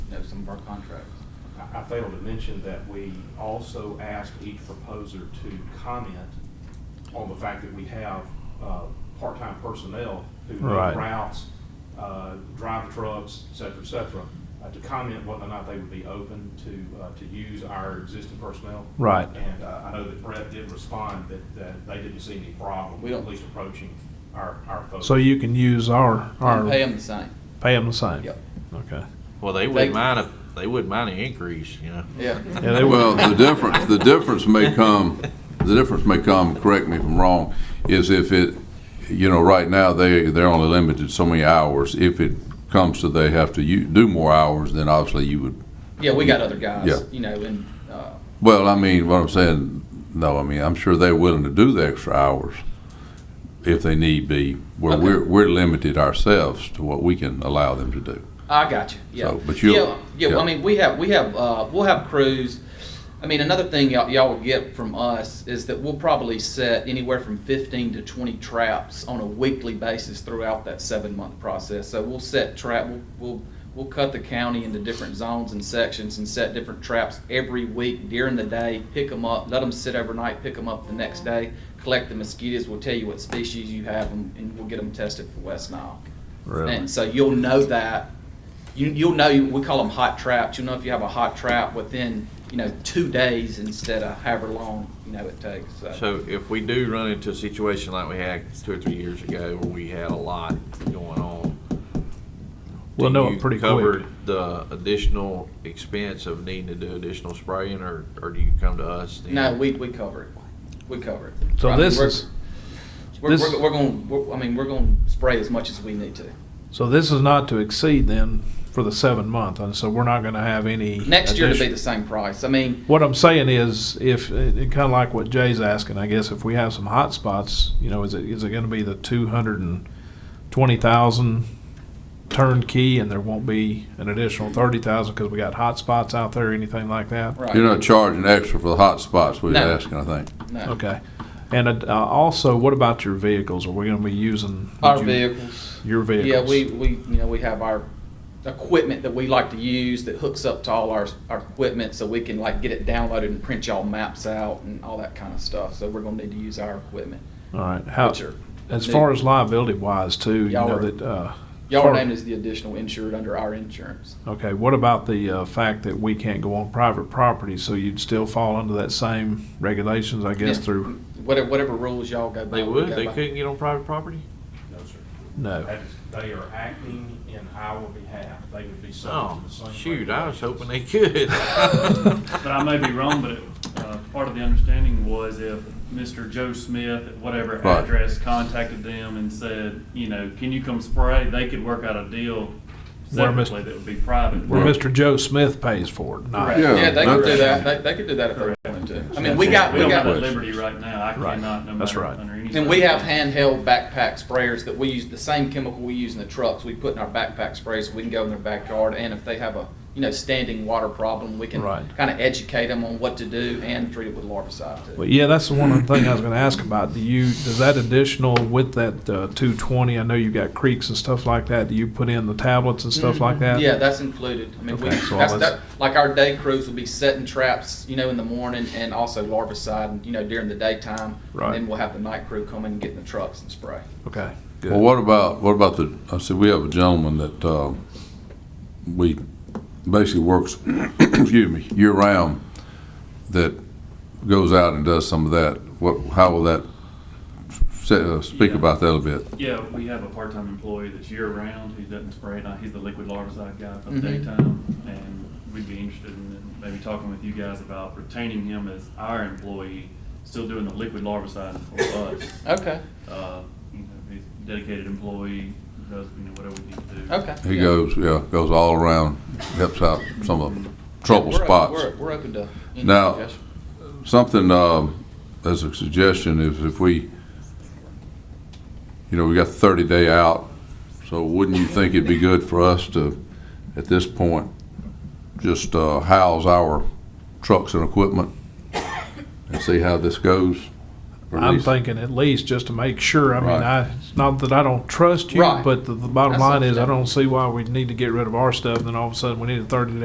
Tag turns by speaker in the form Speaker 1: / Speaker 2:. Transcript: Speaker 1: some of our contracts.
Speaker 2: I- I failed to mention that we also asked each proposer to comment on the fact that we have uh, part-time personnel who know
Speaker 3: Right.
Speaker 2: routes, uh, drive trucks, et cetera, et cetera, uh, to comment whether or not they would be open to, uh, to use our existing personnel.
Speaker 3: Right.
Speaker 2: And uh, I know that Brett did respond that, that they didn't see any problem,
Speaker 1: We don't-
Speaker 2: at least approaching our, our folks.
Speaker 3: So you can use our, our,
Speaker 1: And pay them the same.
Speaker 3: pay 'em the same?
Speaker 1: Yep.
Speaker 3: Okay.
Speaker 4: Well, they
Speaker 1: They-
Speaker 4: wouldn't mind a, they wouldn't mind an increase, you know?
Speaker 1: Yeah.
Speaker 3: Yeah, they
Speaker 5: Well,
Speaker 3: would,
Speaker 5: the difference, the difference may come, the difference may come, correct me if I'm wrong, is if it, you know, right now, they, they're only limited so many hours. If it comes to they have to u- do more hours, then obviously you would,
Speaker 1: Yeah, we got other guys,
Speaker 5: Yeah.
Speaker 1: you know, and, uh,
Speaker 5: well, I mean, what I'm saying, no, I mean, I'm sure they're willing to do the extra hours if they need be, where
Speaker 1: Okay.
Speaker 5: we're, we're limited ourselves to what we can allow them to do.
Speaker 1: I got you. Yeah.
Speaker 5: So, but you'll-
Speaker 1: yeah, yeah, well, I
Speaker 5: yeah.
Speaker 1: mean, we have we have uh, we'll have crews. I mean, another thing y'all, y'all will get from us is that we'll probably set anywhere from 15 to 20 traps on a weekly basis throughout that seven month process. So we'll set trap. We'll, we'll we'll cut the county into different zones and sections and set different traps every week during the day. Pick them up. Let them sit overnight. Pick them up the next day. Collect the mosquitoes. We'll tell you what species you have them, and we'll get them tested for West Nile.
Speaker 3: Really?
Speaker 1: And so you'll know that, you, you'll know, we call them hot traps, you'll know if you have a hot trap within, you know, two days instead of however long, you know, it takes, so.
Speaker 4: So if we do run into a situation like we had two or three years ago where we had a lot going on.
Speaker 3: We'll
Speaker 4: do
Speaker 3: know it
Speaker 4: you
Speaker 3: pretty
Speaker 4: cover
Speaker 3: quick.
Speaker 4: The additional expense of needing to do additional spraying or, or do you come to us? then?
Speaker 1: No, we, we cover it, we cover it.
Speaker 3: So
Speaker 1: I mean,
Speaker 3: this
Speaker 1: we're-
Speaker 3: is-
Speaker 1: We're,
Speaker 3: this-
Speaker 1: we're, we're gonna, we're- I mean, we're gonna spray as much as we need to.
Speaker 3: so this is not to exceed then for the seven month, and so we're not gonna have any.
Speaker 1: Next year to be
Speaker 3: addition-
Speaker 1: the same price, I mean,
Speaker 3: What I'm saying is, if, kind of like what Jay's asking, I guess, if we have some hot spots, you know, is it, is it gonna be the two hundred and twenty thousand turnkey, and there won't be an additional thirty thousand, because we got hot spots out there, anything like that?
Speaker 1: right.
Speaker 5: You're not charging extra for the hot spots, we're
Speaker 1: No.
Speaker 5: asking, I think.
Speaker 1: no.
Speaker 3: Okay. And uh, also, what about your vehicles? Are we gonna be using? would
Speaker 1: Our
Speaker 3: you-
Speaker 1: vehicles.
Speaker 3: Your vehicles?
Speaker 1: Yeah, we, we, you know, we have our equipment that we like to use that hooks up to all our, our equipment so we can like get it downloaded and print y'all maps out and all that kind of stuff. So we're gonna need to use our equipment.
Speaker 3: All right, how,
Speaker 1: Which are
Speaker 3: as
Speaker 1: new.
Speaker 3: far as liability wise too, you
Speaker 1: Y'all
Speaker 3: know
Speaker 1: are-
Speaker 3: that, uh.
Speaker 1: Y'all
Speaker 3: far-
Speaker 1: are named as the additional insured under our insurance.
Speaker 3: Okay, what about the, uh, fact that we can't go on private property, so you'd still fall under that same regulations, I guess,
Speaker 1: Yeah.
Speaker 3: through,
Speaker 1: Whatever, whatever rules y'all go by.
Speaker 4: They
Speaker 1: we
Speaker 4: would,
Speaker 1: go
Speaker 4: they
Speaker 1: by.
Speaker 4: couldn't get on private property?
Speaker 2: No, sir.
Speaker 3: no.
Speaker 2: That is, they are acting in our behalf. They would be
Speaker 4: Oh,
Speaker 2: subject to the same.
Speaker 4: shoot, I was hoping they
Speaker 2: regulations.
Speaker 4: could.
Speaker 6: But I may be wrong, but uh, part of the understanding was if Mr. Joe Smith at whatever
Speaker 5: Right.
Speaker 6: address contacted them and said, you know, can you come spray, they could work out a deal
Speaker 3: Where Mr.
Speaker 6: separately that would be private.
Speaker 3: Where
Speaker 5: Right.
Speaker 3: Mr. Joe Smith pays for it, not.
Speaker 5: Yeah,
Speaker 1: Yeah, they could do that,
Speaker 5: that's-
Speaker 1: they, they could do that if they wanted to. I mean,
Speaker 5: That's
Speaker 1: we
Speaker 5: it.
Speaker 1: got,
Speaker 6: We
Speaker 1: we
Speaker 6: don't have
Speaker 1: got.
Speaker 6: that liberty right now. I
Speaker 3: Right.
Speaker 6: cannot, no
Speaker 3: That's
Speaker 6: matter
Speaker 3: right.
Speaker 6: under any.
Speaker 1: And we have
Speaker 6: circumstances.
Speaker 1: handheld backpack sprayers that we use, the same chemical we use in the trucks, we put in our backpack sprays, we can go in their backyard, and if they have a, you know, standing water problem, we can
Speaker 3: Right.
Speaker 1: kind of educate them on what to do and treat it with larvicide too.
Speaker 3: Well, yeah, that's the one other thing I was gonna ask about. Do you, does that additional with that, uh, two twenty, I know you got creeks and stuff like that, do you put in the tablets and stuff like that?
Speaker 1: Mm-hmm. Yeah, that's included. I mean, we,
Speaker 3: Okay, so
Speaker 1: that's,
Speaker 3: all
Speaker 1: that, like our day crews will be setting traps, you know, in the morning and also larvicide, you know, during the daytime.
Speaker 3: Right.
Speaker 1: And then we'll have the night crew come in and get in the trucks and spray.
Speaker 3: Okay,
Speaker 5: Well,
Speaker 3: good.
Speaker 5: what about, what about the, I said, we have a gentleman that, uh, we basically works, excuse me, year round, that goes out and does some of that. What, how will that, say, uh, speak
Speaker 6: Yeah.
Speaker 5: about that a bit?
Speaker 6: Yeah, we have a part-time employee that's year-round, who doesn't spray at night, he's the liquid larvicide guy for the
Speaker 1: Mhm.
Speaker 6: daytime, and we'd be interested in maybe talking with you guys about retaining him as our employee, still doing the liquid larvicide for us.
Speaker 1: Okay,
Speaker 6: Uh, you know, he's a dedicated employee, does, you know, whatever we need to do.
Speaker 1: okay.
Speaker 5: He
Speaker 1: yeah.
Speaker 5: goes, yeah, goes all around, helps out some of the trouble
Speaker 1: We're o-
Speaker 5: spots.
Speaker 1: We're, we're open to any
Speaker 5: Now-
Speaker 1: suggestions.
Speaker 5: Something, um, as a suggestion, is if we, you know, we got thirty day out, so wouldn't you think it'd be good for us to, at this point, just, uh, house our trucks and equipment and see how this goes? Or at
Speaker 3: I'm
Speaker 5: least-
Speaker 3: thinking at least just to make sure, I mean,
Speaker 5: Right.
Speaker 3: I, it's not that I don't trust you,
Speaker 1: Right.
Speaker 3: but the, the bottom
Speaker 1: That's
Speaker 3: line is, I
Speaker 1: understandable.
Speaker 3: don't see why we need to get rid of our stuff, and then all of a sudden, we need a thirty